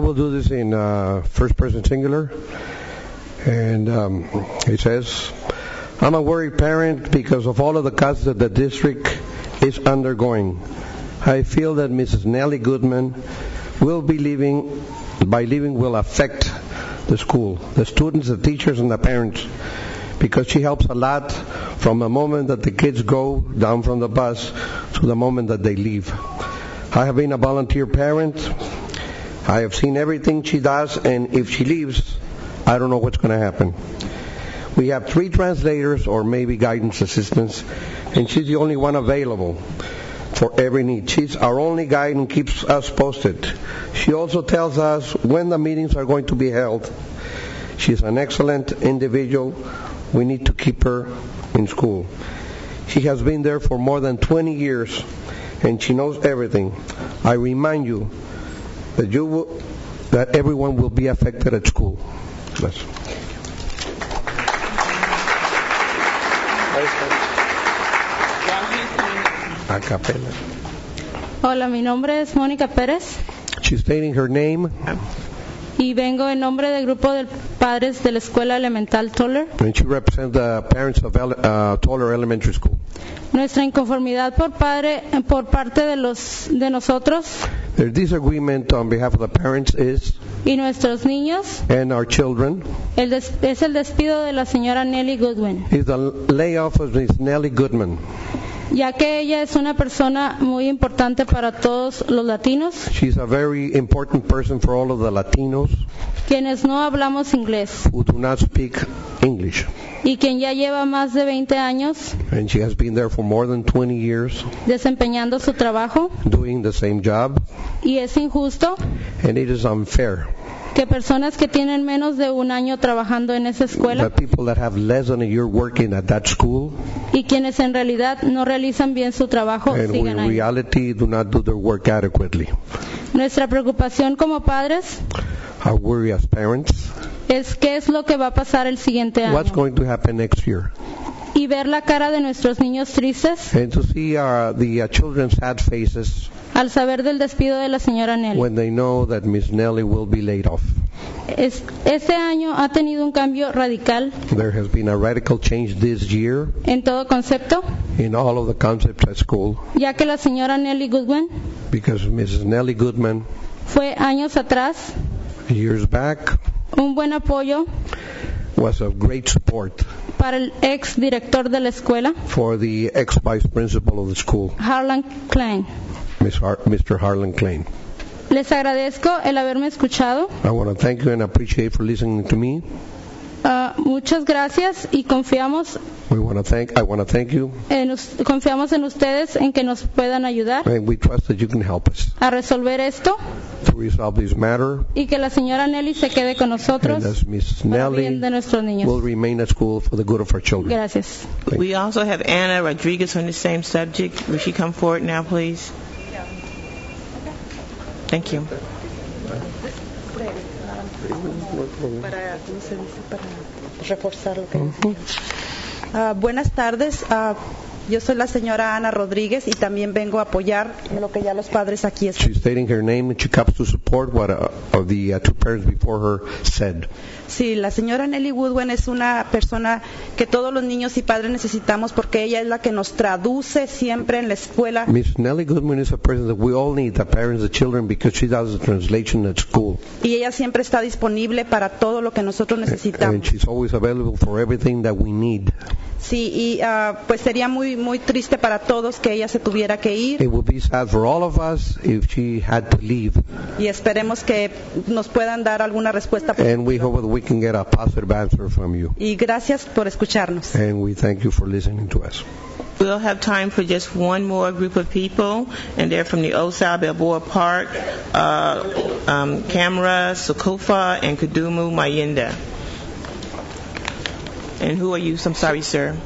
We'll do this in uh, first person singular. And um, it says, I'm a worried parent because of all of the cuts that the district is undergoing. I feel that Mrs. Nellie Goodman will be leaving, by leaving will affect the school, the students, the teachers, and the parents, because she helps a lot from the moment that the kids go down from the bus to the moment that they leave. I have been a volunteer parent. I have seen everything she does, and if she leaves, I don't know what's going to happen. We have three translators or maybe guidance assistants, and she's the only one available for every need. She's our only guide and keeps us posted. She also tells us when the meetings are going to be held. She's an excellent individual. We need to keep her in school. She has been there for more than 20 years, and she knows everything. I remind you that you will, that everyone will be affected at school. Yes. A cappella. Hola, mi nombre es Mónica Pérez She's stating her name, y vengo en nombre del grupo de padres de la Escuela Elemental Toller. and she represents the parents of ele- uh, Toller Elementary School. Nuestra inconformidad por, padre, por parte de, los, de nosotros Their disagreement on behalf of the parents is, y nuestros niños and our children, el des- es el despido de la señora Nelly Goodwin, is the layoff of Ms. Nellie Goodman. ya que ella es una persona muy importante para todos los latinos, She's a very important person for all of the Latinos quienes no hablamos inglés who do not speak English. y quien ya lleva más de 20 años And she has been there for more than 20 years desempeñando su trabajo doing the same job, y es injusto and it is unfair que personas que tienen menos de un año trabajando en esa escuela that people that have less than a year working at that school y quienes en realidad no realizan bien su trabajo and who Oh, sigan in ahí. reality do not do their work adequately. Nuestra preocupación como padres Our worry as parents, es qué es lo que va a pasar el siguiente año what's going to happen next year? y ver la cara de nuestros niños tristes And to see uh, the uh, children's sad faces al saber del despido de la señora Nelly. when they know that Miss Nelly will be laid off. Es- este año ha tenido un cambio radical There has been a radical change this year en todo concepto, in all of the concepts at school ya que la señora Nelly Goodwin because Mrs. Nellie Goodman, fue años atrás years back, un buen apoyo was of great support para el ex director de la escuela, for the ex-vice principal of the school, Harlan Klein. Miss Har- Mr. Harlan Klein. Les agradezco el haberme escuchado. I want to thank you and appreciate for listening to me. Ah, muchas gracias y confiamos We want to thank. I want to thank you, en, us- Eh, confiamos en ustedes en que nos puedan ayudar and we trust that you can help us a resolver esto to resolve this matter. y que la señora Nelly se quede con And nosotros as Miss para bien de Nelly nuestros will niños. remain at school for the good of our children. Gracias. We also have Anna Rodriguez on the same subject. Would she come forward now, please? Thank you. para, ¿cómo se dice? para reforzar lo que decía. Ah, buenas tardes. Ah, yo soy la señora Ana Rodríguez y también vengo a apoyar lo que ya los padres aquí están. She's stating her name, and she comes to support what uh, of the uh, two parents before her said. Sí, la señora Nelly Woodwen es una persona que todos los niños y padres necesitamos porque ella es la que nos traduce siempre en la escuela. Miss Nellie Goodman is a person that we all need, the parents, the children, because she does the translation at school. Y ella siempre está disponible para todo lo que nosotros And necesitamos. she's always available for everything that we need. Sí, y ah, pues sería muy muy triste para todos que ella se tuviera que It ir would be sad for all of us if she had to leave. y esperemos que nos puedan dar alguna respuesta. And we hope that we can get a positive answer from you. Y gracias por escucharnos. And we thank you for listening to us. We'll have time for just one more group of people, and they're from the Old South Balboa Park, uh, um, Camera, Sokofa, and Kudumu Mayenda. And who are you? I'm sorry, sir.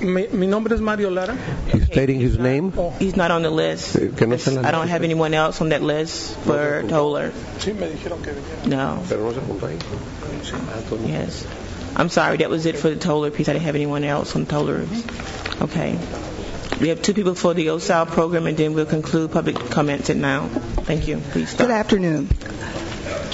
Mi, mi nombre es Mario Lara. He's stating his name. He's not on the list. Eh, que no está en la I don't lista. have anyone else on that list for Toller. Sí, me dijeron que venía. No. Yes. I'm sorry, that was it for the Toller piece. I didn't have anyone else on Toller. Okay. We have two people for the OSAL program, and then we'll conclude public comments at now. Thank you. Please Good start. afternoon.